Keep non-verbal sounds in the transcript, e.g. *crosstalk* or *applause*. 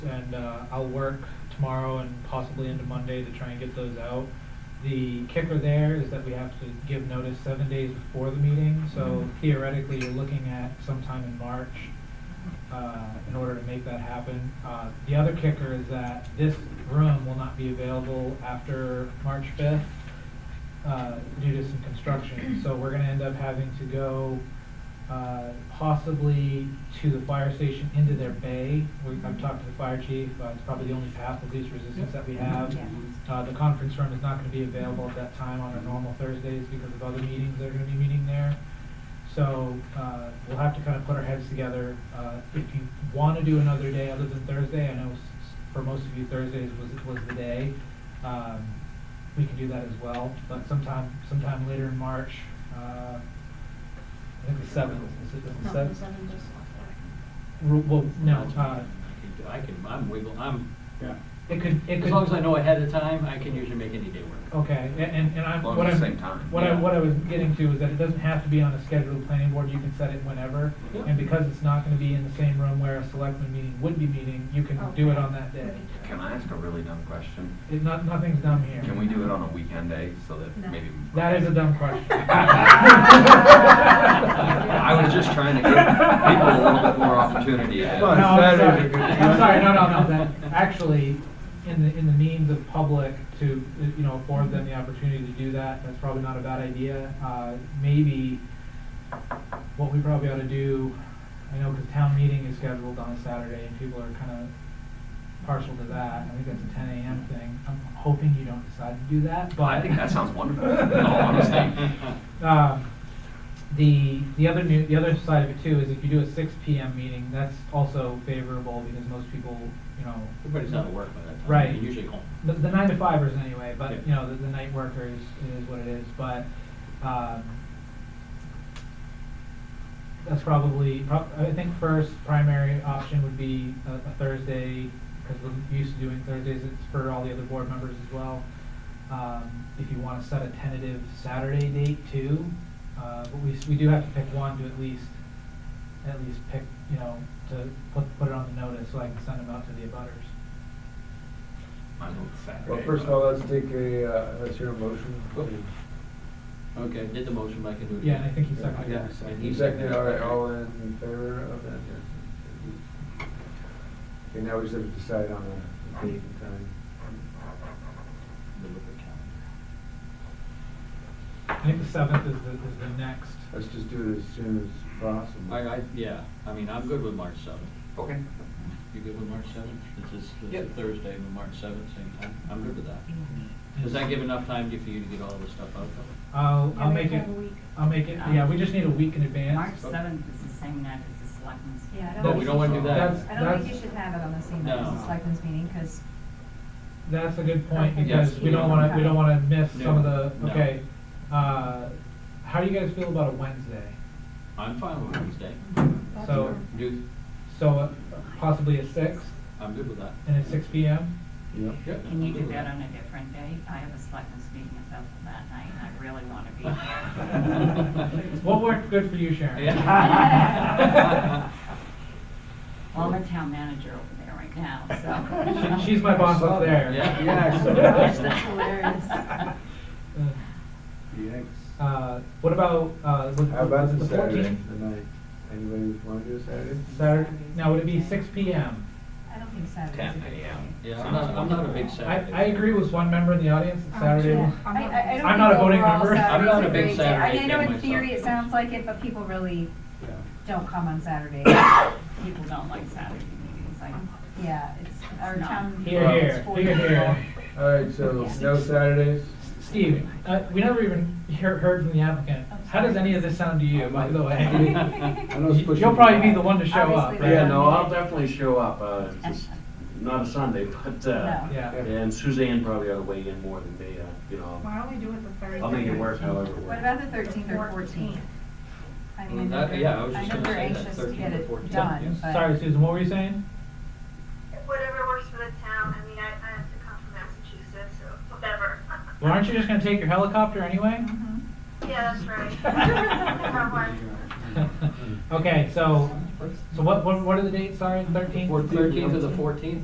and uh, I'll work tomorrow and possibly into Monday to try and get those out. The kicker there is that we have to give notice seven days before the meeting, so theoretically, you're looking at sometime in March uh, in order to make that happen. Uh, The other kicker is that this room will not be available after March 5th uh, due to some construction. So we're gonna end up having to go uh, possibly to the fire station into their bay. We- I've talked to the fire chief, uh, it's probably the only path of least resistance that we have. Yeah. Uh, The conference room is not gonna be available at that time on our normal Thursdays because of other meetings that are gonna be meeting there. So uh, we'll have to kind of put our heads together. Uh, If you want to do another day other than Thursday, I know s- for most of you Thursdays was, was the day. um, We can do that as well, but sometime, sometime later in March, uh, I think the seventh, is it the No, seventh? seven days off. Well, no, uh, I can, I'm wiggle, I'm, Yeah. it could, it could. as long as I know ahead of time, I can usually make any day work. Okay, a- and, and I'm, Along what the I'm, same time, what I, yeah. what I was getting to is that it doesn't have to be on a scheduled planning board, you can set it whenever. Yeah. And because it's not gonna be in the same room where a selectman meeting would be meeting, you can Oh. do it on that day. Can I ask a really dumb question? It, not, nothing's dumb here. Can we do it on a weekend day so that No. maybe? That is a dumb *laughs* question. I was just trying to give people a little bit more opportunity. to- Come on, No, I'm Saturdays are sorry, good. I'm sorry, no, no, no, that, actually, in the, in the means of public to, you know, afford them the opportunity to do that, that's probably not a bad idea. Uh, maybe what we probably ought to do, I know, because town meeting is scheduled on a Saturday and people are kind of partial to that. I think that's a ten AM thing. I'm hoping you don't decide to do that, but. Well, I think that sounds wonderful, *laughs* in all honesty. Um, The, the other new, the other side of it too is if you do a six PM meeting, that's also favorable because most people, you know, Everybody's out of work by that time. Right. They're Usually home. the, the nine to fivers anyway, Yeah. but you know, the, the night workers, it is what it is, but, um, that's probably, prob- I think first primary option would be a, a Thursday, because we're used to doing Thursdays, it's for all the other board members as well. Um, if you wanna set a tentative Saturday date too, uh, but we, s- we do have to pick one to at least, at least pick, you know, to put, put it on the notice, so I can send them out to the abutters. Might as well it's Saturday, Well, first of but- all, let's take a, uh, let's hear a motion. Okay, did the motion, but I can do it. Yeah, and I again. think he seconded it. Yeah, and he Second, all right, it. all in favor of that? Okay, now we just have to decide on a date and time. The look at calendar. I think the seventh is the, is the next. Let's just do it as soon as possible. I, I, yeah, I mean, I'm good with March seventh. Okay. You good with March seventh? This is, this Yep. is Thursday, but March seventh, same time. I'm good with that. Does that give enough time to- for you to get all this stuff out? I'll, Yeah, I'll we make it, have a week. I'll make it, yeah, we just need a week in advance. March seventh is the same night as the selectmen's. Yeah, I don't No, we don't wanna do That's- I that. don't think you should have it on the same night as No. the selectmen's meeting, because That's a good point, Okay. because we don't wanna, we don't wanna miss some of No, the, no. okay. Uh, how do you guys feel about a Wednesday? I'm fine with Wednesday. So, Oh, Do, so uh, possibly a sixth, I'm good with that. and at six P *laughs* M? Yep. Yep. Can you do that on a different day? I have a selectmen's meeting in Bethel that night, and I really want to be there. *laughs* What worked good for you, Sharon? Yeah. *laughs* *laughs* Well, I'm a town manager over there right now, so. *laughs* She- She's my boss up there. Yeah. Yes, Yeah. That's *laughs* hilarious. *laughs* Yikes. Uh, what about, uh, was How about was it the the Saturday, fourteenth? the night? Anybody want to do a Saturday? Saturday, now would it be six P M? I don't think Saturday's a 10 good day. a.m. Yeah, I'm not, I'm not a big I, Saturday. I agree with one member in the audience, Oh, that Saturday. Yeah. was- I, I, I I'm don't not a think voting overall member. I'm not a Saturday's a big great day. I Saturday mean, I know fan in theory myself. it sounds like it, but people really Yeah. don't come on *coughs* Saturday. People don't like Saturday meetings, I, Yeah, it's, our not. town. Here, it's here, 40 here, *laughs* here. people. All right, so no Saturdays? Steve, uh, we never even hear, heard from the applicant. Oh, I'm How does any of this sound to you, by the *laughs* way? I know it's You- pushing You'll it probably be back. the one to show up, Obviously, Yeah, right? no, I'll definitely show up. Uh, it's not a Sunday, *laughs* but, uh, No. Yeah. and Suzanne probably ought to weigh in more than me, uh, you know. Why don't we do it the Thursday? I'll make it work however it What works. about the thirteenth or fourteenth? I mean, I Well, know that- they're- yeah, I was I just know gonna they're say that, anxious to 13th get or it 14th, done, yes. but. Sorry, Susan, what were you saying? Whatever works for the town. I mean, I, I have to come from Massachusetts, so whatever. Well, aren't you just gonna take your helicopter anyway? Mhm. *laughs* yeah, that's *laughs* Mm-hmm. right. Okay, so, so what, what, what are the dates, sorry, thirteenth? Thirteenth to the fourteenth?